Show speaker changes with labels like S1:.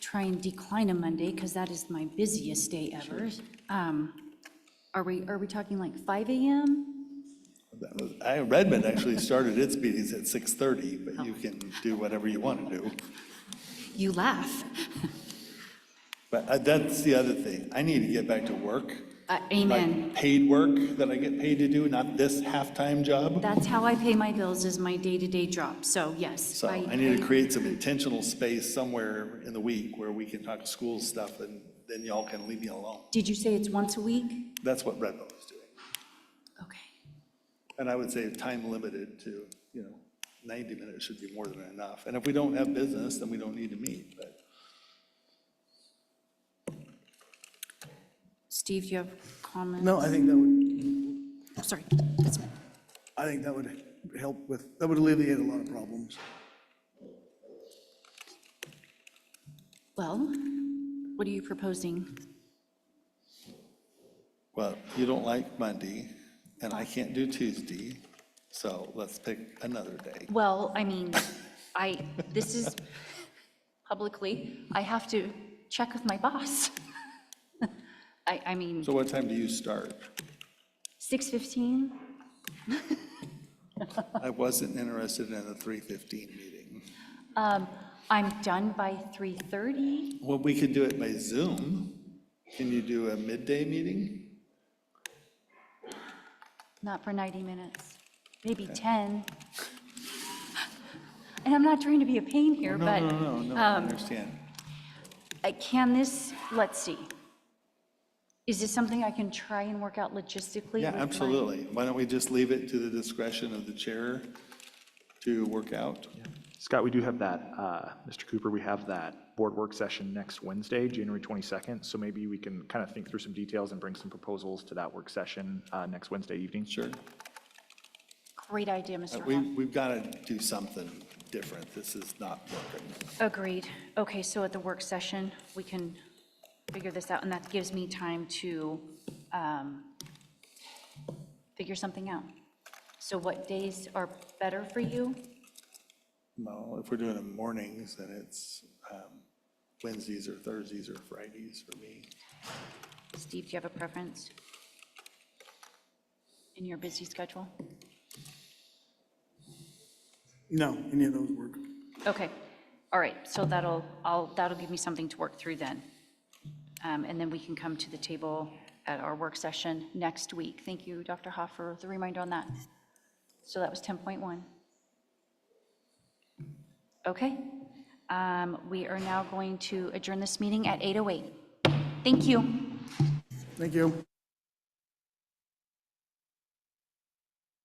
S1: try and decline a Monday, because that is my busiest day ever. Um, Are we, are we talking like 5 AM?
S2: That was- I- Redmond actually started its meetings at 6:30, but you can do whatever you want to do.
S1: You laugh. Uh,
S2: But uh, that's the other thing. I need to get back to work.
S1: Uh,
S2: like
S1: Amen.
S2: Paid work that I get paid to do, not this half-time job.
S1: That's how I pay my bills, is my day-to-day job, so yes.
S2: So I need to create some intentional space somewhere in the week where we can talk school stuff and then y'all can leave me alone.
S1: Did you say it's once a week?
S2: That's what Redmond is doing.
S1: Okay.
S2: And I would say time limited to, you know, 90 minutes should be more than enough. And if we don't have business, then we don't need to meet, but.
S1: Steve, you have comments?
S3: No, I think that would,
S1: Oh, Sorry. That's me.
S3: I think that would help with, that would alleviate a lot of problems.
S1: Well, what are you proposing?
S2: Well, you don't like Monday, and I can't do Tuesday, so let's pick another day.
S1: Well, I mean, I, this is publicly, I have to check with my boss. I, I mean,
S2: So what time do you start?
S1: 6:15?
S2: I wasn't interested in a 3:15 meeting.
S1: Um, I'm done by 3:30.
S2: Well, we could do it by Zoom. Can you do a midday meeting?
S1: Not for 90 minutes, maybe 10. And I'm not trying to be a pain here,
S2: No,
S1: but.
S2: no, no, no, I understand.
S1: Uh, Can this, let's see. Is this something I can try and work out logistically?
S2: Yeah,
S1: with my-
S2: absolutely. Why don't we just leave it to the discretion of the chair to work out?
S4: Scott, we do have that, uh, Mr. Cooper, we have that board work session next Wednesday, January 22nd. So maybe we can kind of think through some details and bring some proposals to that work session uh, next Wednesday evening.
S2: Sure. Uh,
S1: Great idea, Mr.
S2: We,
S1: Hahn.
S2: we've got to do something different. This is not working.
S1: Agreed. Okay, so at the work session, we can figure this out, and that gives me time to um, figure something out. So what days are better for you?
S2: Well, if we're doing it mornings, then it's um, Wednesdays or Thursdays or Fridays for me.
S1: Steve, do you have a preference? In your busy schedule?
S3: No, any of those work.
S1: Okay, all right, so that'll, I'll, that'll give me something to work through then. Um, And then we can come to the table at our work session next week. Thank you, Dr. Hoff, for the reminder on that. So that was 10.1. Okay, um, we are now going to adjourn this meeting at 8:08. Thank oh you.
S3: Thank you.